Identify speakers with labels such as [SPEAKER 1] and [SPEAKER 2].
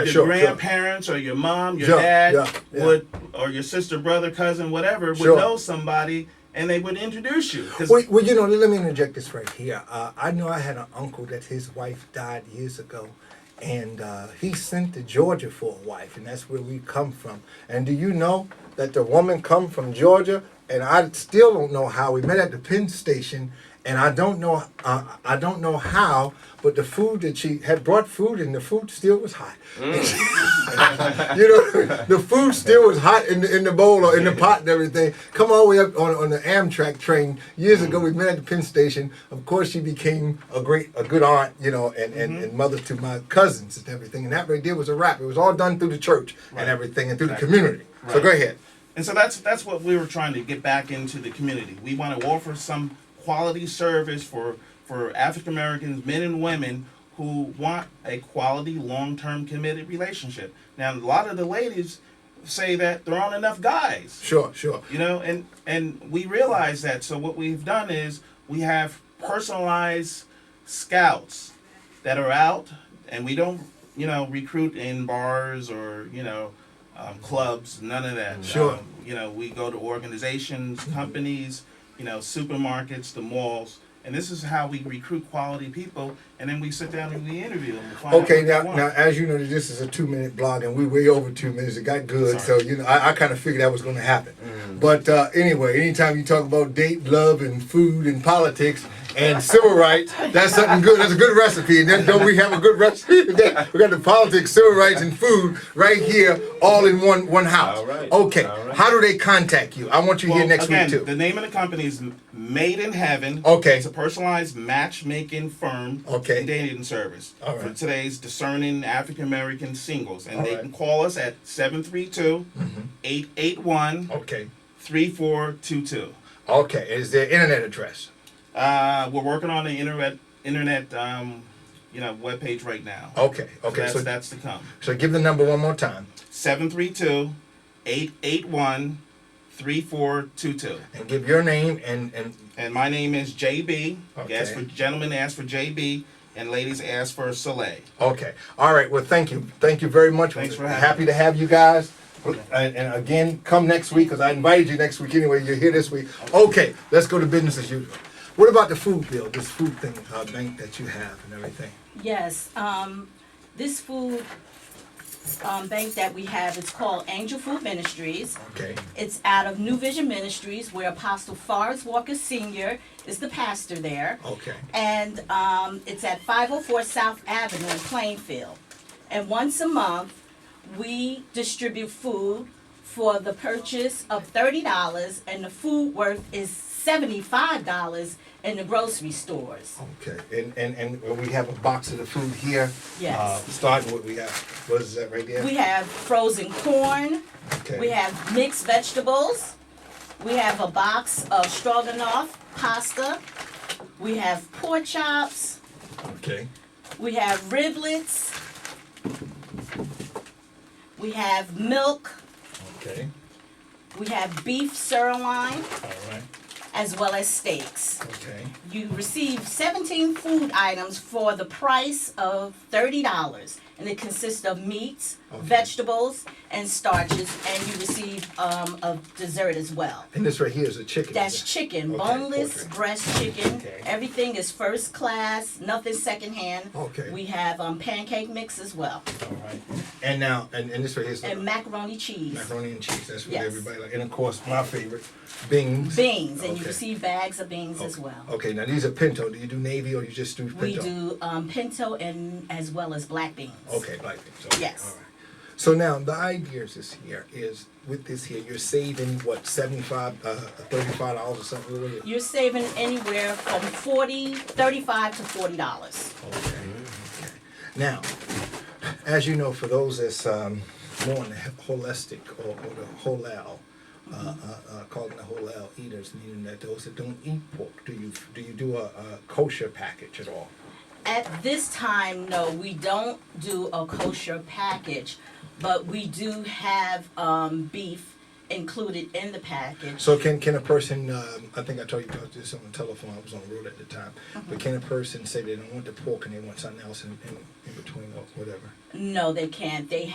[SPEAKER 1] your
[SPEAKER 2] sure, sure.
[SPEAKER 1] grandparents or your mom, your
[SPEAKER 2] Sure,
[SPEAKER 1] dad
[SPEAKER 2] yeah, yeah.
[SPEAKER 1] would, or your sister, brother, cousin, whatever, would
[SPEAKER 2] Sure.
[SPEAKER 1] know somebody and they would introduce you. 'Cause-
[SPEAKER 2] Well, well, you know, let me interject this right here. Uh, I know I had an uncle that his wife died years ago, and uh, he sent to Georgia for a wife, and that's where we come from. And do you know that the woman come from Georgia? And I still don't know how we met at the Penn station, and I don't know, uh, I don't know how, but the food that she had brought food, and the food still was hot. you know, the food still was hot in the, in the bowl or in the pot and everything. Come all the way up on, on the Amtrak train years ago. We met at the Penn Station. Of course, she became a great, a good aunt, you know, and, and, and mother to my cousins and everything. And that right there was a wrap. It was all done through the church and everything and through the community. So go ahead.
[SPEAKER 1] And so that's that's what we were trying to get back into the community. We want to offer some quality service for for African Americans, men and women who want a quality, long-term committed relationship. Now, a lot of the ladies say that there aren't enough guys,
[SPEAKER 2] Sure, sure.
[SPEAKER 1] you know, and and we realize that. So what we've done is we have personalized scouts that are out, and we don't, you know, recruit in bars or you know, um, clubs, none of that.
[SPEAKER 2] Sure.
[SPEAKER 1] Um, you know, we go to organizations, companies, you know, supermarkets, the malls, and this is how we recruit quality people. And then we sit down and we interview them. to find out
[SPEAKER 2] Okay,
[SPEAKER 1] what they
[SPEAKER 2] now,
[SPEAKER 1] want.
[SPEAKER 2] now, as you know, this is a two-minute blog, and we way over two minutes. It got good, so you know, I, I kind of figured that was going to happen.
[SPEAKER 3] Mm.
[SPEAKER 2] But uh, anyway, anytime you talk about date, love, and food, and politics, and civil rights, that's something good. That's a good recipe. And then don't we have a good recipe today? We got the politics, civil rights, and food right here, all in one one house.
[SPEAKER 3] All right,
[SPEAKER 2] Okay,
[SPEAKER 3] all right.
[SPEAKER 2] how do they contact you? I want you
[SPEAKER 1] Well,
[SPEAKER 2] here next
[SPEAKER 1] again,
[SPEAKER 2] week too. Oh,
[SPEAKER 1] The name of the company is M- Made in Heaven.
[SPEAKER 2] Okay.
[SPEAKER 1] It's a personalized matchmaking firm.
[SPEAKER 2] Okay.
[SPEAKER 1] And dating service
[SPEAKER 2] All
[SPEAKER 1] for
[SPEAKER 2] right.
[SPEAKER 1] today's discerning African American singles. And
[SPEAKER 2] All
[SPEAKER 1] they
[SPEAKER 2] right. Mm-hmm.
[SPEAKER 1] can call us at 732 881
[SPEAKER 2] Okay,
[SPEAKER 1] 3422.
[SPEAKER 2] okay. Is their internet address?
[SPEAKER 1] Uh, we're working on the internet, internet um, you know, webpage right now.
[SPEAKER 2] Okay,
[SPEAKER 1] So
[SPEAKER 2] Oh, okay.
[SPEAKER 1] that's,
[SPEAKER 2] So,
[SPEAKER 1] that's to come.
[SPEAKER 2] so give the number one more time.
[SPEAKER 1] 732 881 3422.
[SPEAKER 2] and give your name and and
[SPEAKER 1] And my name is JB.
[SPEAKER 2] Okay.
[SPEAKER 1] Ask for gentlemen ask for JB and ladies ask for Soleil.
[SPEAKER 2] okay. All right. Well, thank you. Thank you very much.
[SPEAKER 1] Thanks for
[SPEAKER 2] We're
[SPEAKER 1] having
[SPEAKER 2] happy to have you guys. And, and again, come next week because I invited you next week anyway. You're here this week. Okay, let's go to business as usual. What about the food bill? This food thing, uh, bank that you have and everything.
[SPEAKER 4] Yes, um, this food, um, bank that we have, it's called Angel Food Ministries.
[SPEAKER 2] Okay.
[SPEAKER 4] It's out of New Vision Ministries where Apostle Forrest Walker Senior is the pastor there.
[SPEAKER 2] Okay.
[SPEAKER 4] And, um, it's at five oh four South Avenue in Plainfield. And once a month, we distribute food for the purchase of thirty dollars and the food worth is seventy-five dollars in the grocery stores.
[SPEAKER 2] Okay. And and and we have a box of the food here.
[SPEAKER 4] Yes.
[SPEAKER 2] Uh, starting what we have. What is that right there?
[SPEAKER 4] We have frozen corn.
[SPEAKER 2] okay.
[SPEAKER 4] We have mixed vegetables. We have a box of stroganoff pasta. We have pork chops.
[SPEAKER 2] Okay.
[SPEAKER 4] We have riblets. We have milk.
[SPEAKER 2] Okay.
[SPEAKER 4] We have beef sirloin
[SPEAKER 2] All right.
[SPEAKER 4] as well as steaks.
[SPEAKER 2] Okay.
[SPEAKER 4] You receive 17 food items for the price of $30. And it consists of meats, vegetables, and starches. And you receive um, a dessert as well.
[SPEAKER 2] And this right here is a chicken.
[SPEAKER 4] That's chicken,
[SPEAKER 2] Okay,
[SPEAKER 4] boneless
[SPEAKER 2] poultry.
[SPEAKER 4] breast chicken.
[SPEAKER 2] Okay.
[SPEAKER 4] Everything is first class, nothing secondhand.
[SPEAKER 2] Okay.
[SPEAKER 4] We have um, pancake mix as well,
[SPEAKER 2] All right. And now and, and this right here is
[SPEAKER 4] and macaroni cheese,
[SPEAKER 2] Macaroni and cheese, that's what
[SPEAKER 4] Yes.
[SPEAKER 2] everybody like. And of course, my favorite, beans.
[SPEAKER 4] beans, and you
[SPEAKER 2] Okay.
[SPEAKER 4] receive bags of beans as
[SPEAKER 2] Okay.
[SPEAKER 4] well.
[SPEAKER 2] Okay, now these are pinto. Do you do navy or you just do pinto?
[SPEAKER 4] We do um, pinto and as well as black beans.
[SPEAKER 2] Okay, black beans. Okay,
[SPEAKER 4] Yes.
[SPEAKER 2] All right. So now the idea is this here is with this here, you're saving what, 75 uh, $35 or something? What is it?
[SPEAKER 4] You're saving anywhere from 40, 35 to forty dollars.
[SPEAKER 2] Okay. okay. Now, as you know, for those that's um, more on the holistic or, or the halal, uh, uh, uh, calling the halal eaters, meaning that those that don't eat pork, do you do you do a, a kosher package at all?
[SPEAKER 4] At this time, no, we don't do a kosher package, but we do have um, beef included in the package.
[SPEAKER 2] So can, can a person, um, I think I told you about this on the telephone, I was on the road at the time, but can a person say they don't want the pork and they want something else in, in, in between or whatever?
[SPEAKER 4] No, they can't. They